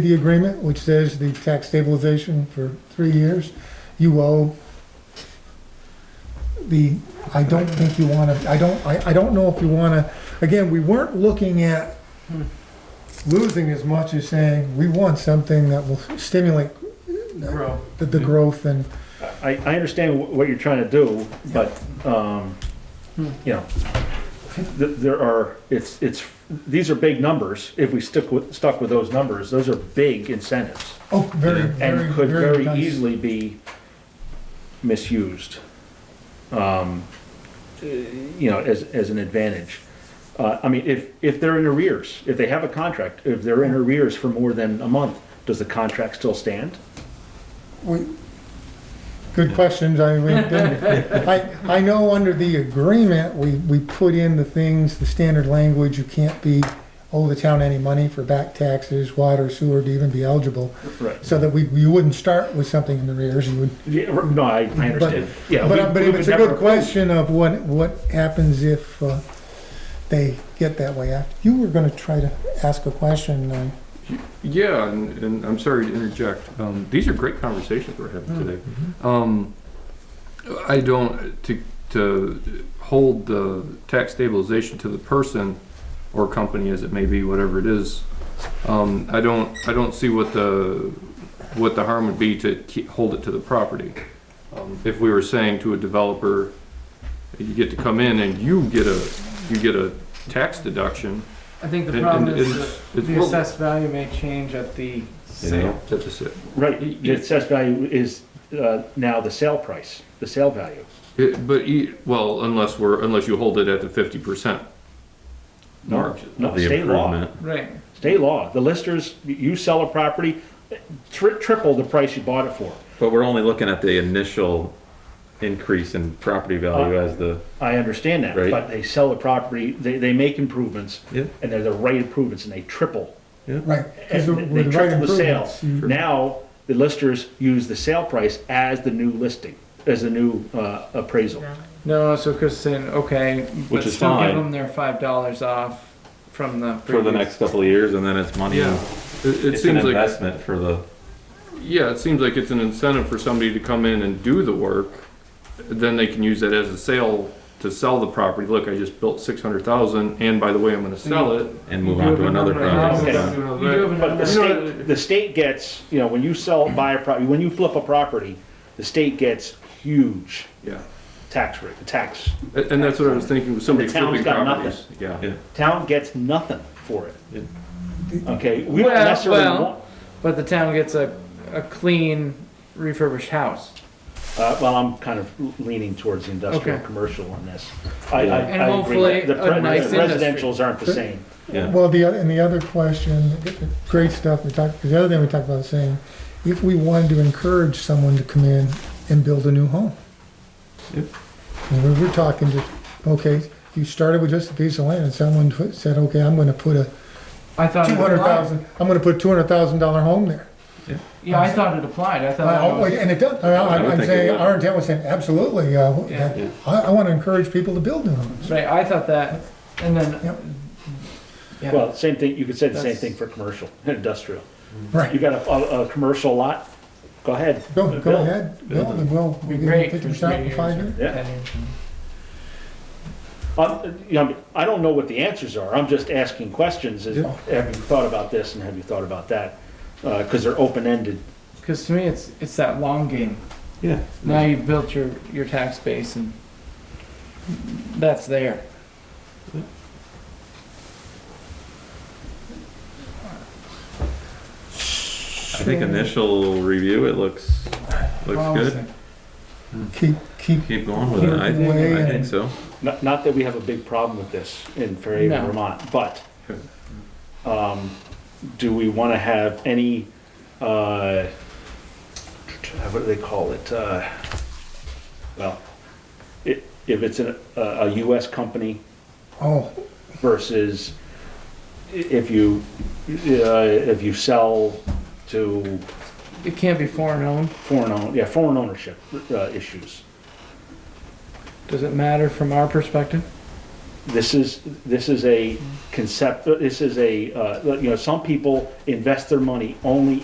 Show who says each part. Speaker 1: the agreement, which says the tax stabilization for three years, you owe the, I don't think you wanna, I don't, I, I don't know if you wanna, again, we weren't looking at losing as much as saying, we want something that will stimulate
Speaker 2: grow.
Speaker 1: the, the growth and,
Speaker 3: I, I understand wh- what you're trying to do, but, um, you know, th- there are, it's, it's, these are big numbers. If we stick with, stuck with those numbers, those are big incentives
Speaker 1: oh, very, very,
Speaker 3: and could
Speaker 1: very
Speaker 3: very
Speaker 1: nice.
Speaker 3: easily be misused. um, eh, You know, as, as an advantage. Uh, I mean, if, if they're in arrears, if they have a contract, if they're in arrears for more than a month, does the contract still stand?
Speaker 1: We- Good questions, I mean, we didn't- I, I know under the agreement, we, we put in the things, the standard language, you can't be, owe the town any money for back taxes, water, sewer, to even be eligible.
Speaker 3: Right.
Speaker 1: So that we, you wouldn't start with something in the rears, you would.
Speaker 3: Yeah, r- no, I, I understand. Yeah, we-
Speaker 1: But, but
Speaker 3: we
Speaker 1: if
Speaker 3: would
Speaker 1: it's a
Speaker 3: never
Speaker 1: good
Speaker 3: approve.
Speaker 1: question of what, what happens if, uh, they get that way out. You were gonna try to ask a question, uh,
Speaker 2: Yeah, and, and I'm sorry to interject. Um, these are great conversations we're having today.
Speaker 3: Mm-hmm.
Speaker 2: Um, I don't to to hold the tax stabilization to the person or company as it may be, whatever it is. Um, I don't I don't see what the what the harm would be to keep, hold it to the property. Um, if we were saying to a developer, you get to come in and you get a you get a tax deduction.
Speaker 4: I think the
Speaker 2: and-
Speaker 4: problem
Speaker 2: and
Speaker 4: is
Speaker 2: it's-
Speaker 4: that
Speaker 2: it's
Speaker 4: the
Speaker 2: worth-
Speaker 4: assessed value may change at the
Speaker 2: you know,
Speaker 4: sale.
Speaker 2: that's just it.
Speaker 3: Right, the assessed value is, uh, now the sale price, the sale value.
Speaker 2: It, but e, well, unless we're unless you hold it at the fifty percent mark.
Speaker 3: No,
Speaker 5: the
Speaker 3: state law,
Speaker 5: improvement.
Speaker 4: Right.
Speaker 3: state law, the listers, you sell a property, tri- triple the price you bought it for.
Speaker 5: But we're only looking at the initial increase in property value as the,
Speaker 3: I understand that,
Speaker 5: Right.
Speaker 3: but they sell the property, they, they make improvements,
Speaker 5: Yeah.
Speaker 3: and they're the right improvements, and they triple.
Speaker 1: right? 'cause
Speaker 3: and
Speaker 1: with
Speaker 3: They
Speaker 1: the right
Speaker 3: triple the sale.
Speaker 1: improvements, you-
Speaker 3: Now, the listers use the sale price as the new listing, as the new, uh, appraisal.
Speaker 4: No, so Chris is saying, okay,
Speaker 5: Which
Speaker 4: but
Speaker 5: is
Speaker 4: still give
Speaker 5: fine.
Speaker 4: them their five dollars off from the
Speaker 5: for the
Speaker 4: previous-
Speaker 5: next couple of years, and then it's money.
Speaker 2: Yeah, it, it
Speaker 5: It's an
Speaker 2: seems like
Speaker 5: investment for the,
Speaker 2: yeah, it seems like it's an incentive for somebody to come in and do the work. Then they can use that as a sale to sell the property. Look, I just built six hundred thousand, and by the way, I'm going to sell it.
Speaker 5: and move
Speaker 4: You
Speaker 5: on
Speaker 4: have
Speaker 5: to another
Speaker 4: another house.
Speaker 5: project.
Speaker 3: Okay.
Speaker 4: You do have
Speaker 3: But the
Speaker 4: another-
Speaker 3: state, the state gets, you know, when you sell, buy a property, when you flip a property, the state gets huge
Speaker 2: Yeah,
Speaker 3: tax rate, tax.
Speaker 2: and, and that's what I was thinking with somebody
Speaker 3: The town's
Speaker 2: flipping
Speaker 3: got
Speaker 2: properties. Yeah.
Speaker 5: Yeah.
Speaker 3: Town gets nothing for it. Okay, we don't
Speaker 4: Well,
Speaker 3: necessarily
Speaker 4: well.
Speaker 3: want,
Speaker 4: But the town gets a, a clean refurbished house.
Speaker 3: uh, well, I'm kind of leaning towards the industrial,
Speaker 4: Okay.
Speaker 3: commercial on this. I, I,
Speaker 5: Yeah.
Speaker 3: I
Speaker 4: And
Speaker 3: agree. with
Speaker 4: hopefully
Speaker 3: that. The pre-
Speaker 4: a nice
Speaker 3: the
Speaker 4: industry.
Speaker 3: Residentials aren't the same.
Speaker 5: Yeah.
Speaker 1: Well, the, other and the other question, great stuff, we talked, the other thing we talked about is saying, if we wanted to encourage someone to come in and build a new home.
Speaker 5: Yep.
Speaker 1: And we were talking just, okay, you started with just a piece of land and someone put- said, okay, I'm gonna put a
Speaker 4: I thought. it
Speaker 1: two hundred
Speaker 4: applied.
Speaker 1: thousand, I'm gonna put a two hundred thousand dollar home there.
Speaker 4: Yeah, I thought it applied. I thought.
Speaker 1: Uh,
Speaker 4: it was-
Speaker 1: And it does, I-
Speaker 5: I
Speaker 1: I'm
Speaker 5: would think it
Speaker 1: saying,
Speaker 5: would.
Speaker 1: our intent was saying, absolutely, uh,
Speaker 4: Yeah.
Speaker 5: Yeah.
Speaker 1: I, I wanna encourage people to build new homes.
Speaker 4: Right, I thought that, and
Speaker 1: Yep.
Speaker 4: then. Yeah.
Speaker 3: Well, same thing, you could say the same
Speaker 4: That's-
Speaker 3: thing for commercial, and industrial. You
Speaker 1: Right,
Speaker 3: got a, a, a commercial lot, go ahead.
Speaker 1: go, go
Speaker 3: build.
Speaker 1: ahead, build, and we'll,
Speaker 4: Be
Speaker 1: we'll give you
Speaker 4: great.
Speaker 1: fifty
Speaker 4: for three
Speaker 1: percent in
Speaker 4: years
Speaker 1: five
Speaker 4: or
Speaker 1: years.
Speaker 3: Yeah.
Speaker 4: 10 years.
Speaker 3: Um, you know, I don't know what the answers are, I'm just asking questions, is, have you thought about this and have you thought about that? Uh cause they're open-ended,
Speaker 4: Because to me, it's it's that long game.
Speaker 5: Yeah.
Speaker 4: Now you've built your your tax base, and that's there.
Speaker 5: I think initial review, it looks, looks good.
Speaker 4: Promising.
Speaker 1: Keep, keep
Speaker 5: Keep going with it. I think, I think so.
Speaker 3: not, not that we have a big problem with this in Fairhaven,
Speaker 4: No.
Speaker 3: Vermont, but, um, do we wanna have any, uh, what do they call it, uh, well, i if it's a, a a US company,
Speaker 1: Oh,
Speaker 3: versus i- if you, uh, if you sell to
Speaker 4: It can't be foreign owned.
Speaker 3: foreign own, yeah, foreign ownership, uh, issues.
Speaker 4: Does it matter from our perspective?
Speaker 3: This is, this is a concept, this is a, uh, you know, some people invest their money only